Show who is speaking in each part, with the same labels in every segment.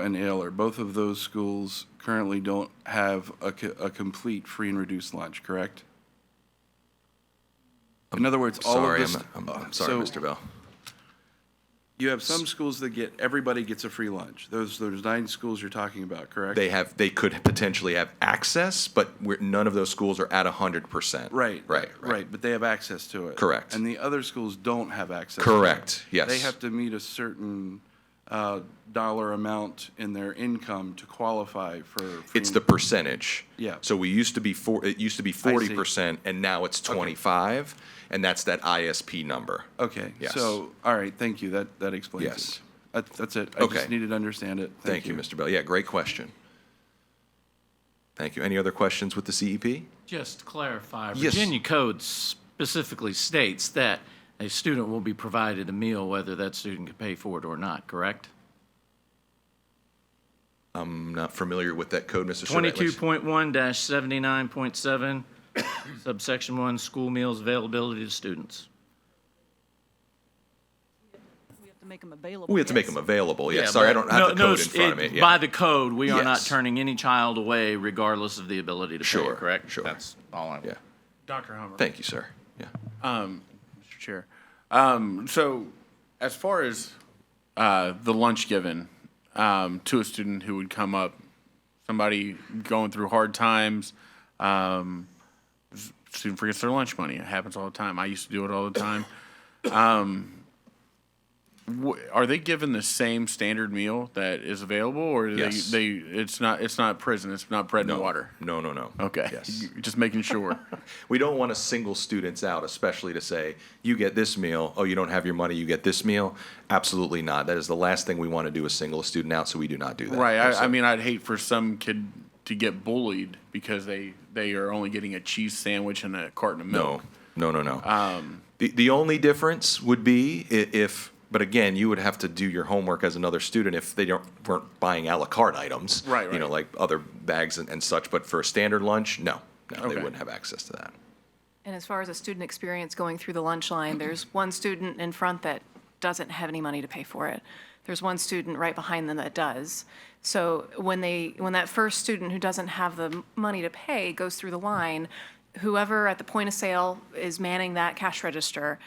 Speaker 1: and Ailer, both of those schools currently don't have a, co- a complete free and reduced lunch, correct? In other words, all of
Speaker 2: Sorry,
Speaker 1: this. uh,
Speaker 2: I'm, I'm, I'm sorry,
Speaker 1: so
Speaker 2: Mr. Bell.
Speaker 1: You have some schools that get, everybody gets a free lunch. Those, those nine schools you're talking about, correct?
Speaker 2: They have, they could potentially have access, but we're, none of those schools are at hundred percent.
Speaker 1: Right.
Speaker 2: Right, right.
Speaker 1: Right, but they have access to it.
Speaker 2: Correct.
Speaker 1: And the other schools don't have access. to it.
Speaker 2: Correct, yes.
Speaker 1: They have to meet a certain uh, dollar amount in their income to qualify for. free
Speaker 2: It's
Speaker 1: and-
Speaker 2: the percentage.
Speaker 1: Yeah.
Speaker 2: So we used to be four, it used to be forty percent and now it's twenty-five, and that's that ISP number.
Speaker 1: Okay,
Speaker 2: Yes.
Speaker 1: so, all right, thank you, that, that explains it.
Speaker 2: Yes.
Speaker 1: That- That's it, I
Speaker 2: Okay.
Speaker 1: just needed to understand it.
Speaker 2: Thank you, Mr. Bell. Yeah, great question. Thank you. Any other questions with the E CEP?
Speaker 3: Just to clarify,
Speaker 2: Yes.
Speaker 3: Virginia code specifically states that a student will be provided a meal whether that student can pay for it or not, correct?
Speaker 2: I'm not familiar with that code, Mr. Surratt.
Speaker 3: Twenty-two point one seventy-nine point seven, subsection one, school meals availability to students.
Speaker 4: We have to make them available.
Speaker 2: We have to make
Speaker 4: yes.
Speaker 2: them available. Yeah, sorry, I don't have the
Speaker 3: No- no,
Speaker 2: code in front of
Speaker 3: it-
Speaker 2: me. Yeah.
Speaker 3: By the code, we are not
Speaker 2: Yes.
Speaker 3: turning any child away regardless of the ability to pay,
Speaker 2: Sure,
Speaker 3: correct?
Speaker 2: sure.
Speaker 3: That's all I
Speaker 2: Yeah.
Speaker 5: Dr. Hummer.
Speaker 2: Thank you, sir. Yeah.
Speaker 5: Mr. Chair. Um, so, as far as uh, the lunch given um, to a student who would come up, somebody going through hard times, um, s- student forgets their lunch money. It happens all the time. I used to do it all the time. Um, wh- are they given the same standard meal that is available, or do
Speaker 2: Yes.
Speaker 5: they, they? It's not. It's not prison. It's not bread and water.
Speaker 2: No, no, no.
Speaker 5: Okay.
Speaker 2: Yes.
Speaker 5: Just making sure.
Speaker 2: We don't want to single students out, especially to say, you get this meal, oh, you don't have your money, you get this meal. Absolutely not. That is the last thing we want to do is single a student out, so we do not do that.
Speaker 5: Right. I, I mean, I'd hate for some kid to get bullied because they they are only getting a cheese sandwich and a carton of
Speaker 2: No,
Speaker 5: milk.
Speaker 2: no, no, no.
Speaker 5: Um.
Speaker 2: the, the only difference would be i- if, but again, you would have to do your homework as another student if they don't weren't buying a la carte items.
Speaker 5: Right,
Speaker 2: You know,
Speaker 5: right.
Speaker 2: like other bags and, and such. But for a standard lunch, no, no, they
Speaker 5: Okay.
Speaker 2: wouldn't have access to that.
Speaker 6: And as far as a student experience going through the lunch line, there's one student in front that doesn't have any money to pay for it. There's one student right behind them that does. So when they, when that first student who doesn't have the m- money to pay goes through the line, whoever at the point of sale is manning that cash register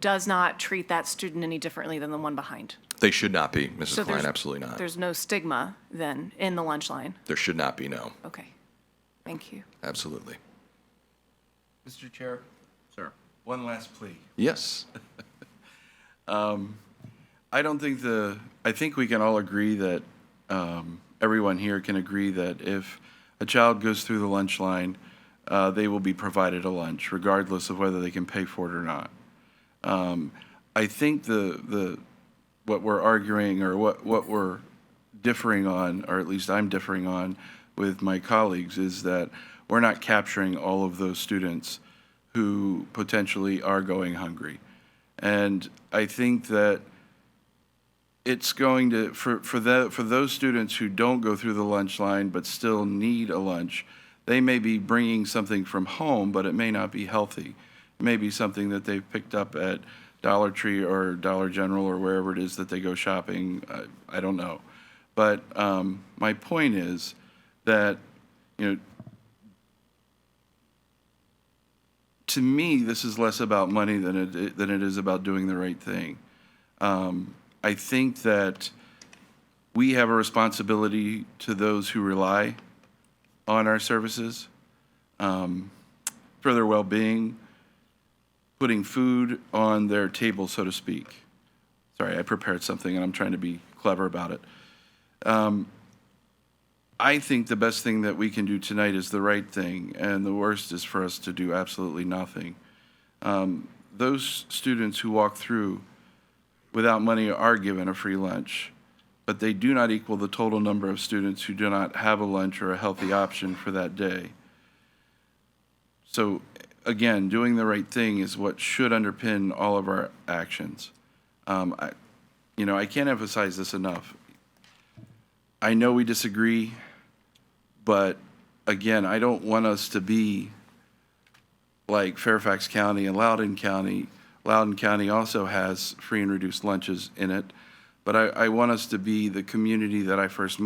Speaker 6: does not treat that student any differently than the one behind.
Speaker 2: They should not be, Mrs.
Speaker 6: So
Speaker 2: Klein.
Speaker 6: there's-
Speaker 2: Absolutely not.
Speaker 6: There's no stigma then in the lunch line.
Speaker 2: There should not be. No,
Speaker 6: Okay. Thank you.
Speaker 2: absolutely.
Speaker 1: Mr. Chair,
Speaker 3: Sir.
Speaker 1: one last plea.
Speaker 2: Yes.
Speaker 1: I don't think the, I think we can all agree that, um, everyone here can agree that if a child goes through the lunch line, uh, they will be provided a lunch regardless of whether they can pay for it or not. Um, I think the, the, what we're arguing or what, what we're differing on, or at least I'm differing on with my colleagues, is that we're not capturing all of those students who potentially are going hungry. And I think that it's going to for for the for those students who don't go through the lunch line but still need a lunch they may be bringing something from home but it may not be healthy it may be something that they've picked up at dollar tree or dollar general or wherever it is that they go shopping i, I don't know but um, my point is that you know to me this is less about money than it than it is about doing the right thing I think that we have a responsibility to those who rely on our services um, for their well-being, putting food on their table, so to speak. Sorry, I prepared something and I'm trying to be clever about it. Um, I think the best thing that we can do tonight is the right thing, and the worst is for us to do absolutely nothing. Um, Those students who walk through without money are given a free lunch, but they do not equal the total number of students who do not have a lunch or a healthy option for that day. So, again, doing the right thing is what should underpin all of our actions. Um, I, you know, I can't emphasize this enough. I know we disagree, but again, I don't want us to be like Fairfax County and Loudoun County. Loudoun County also has free and reduced lunches in it. But I, I want us to be the community that I first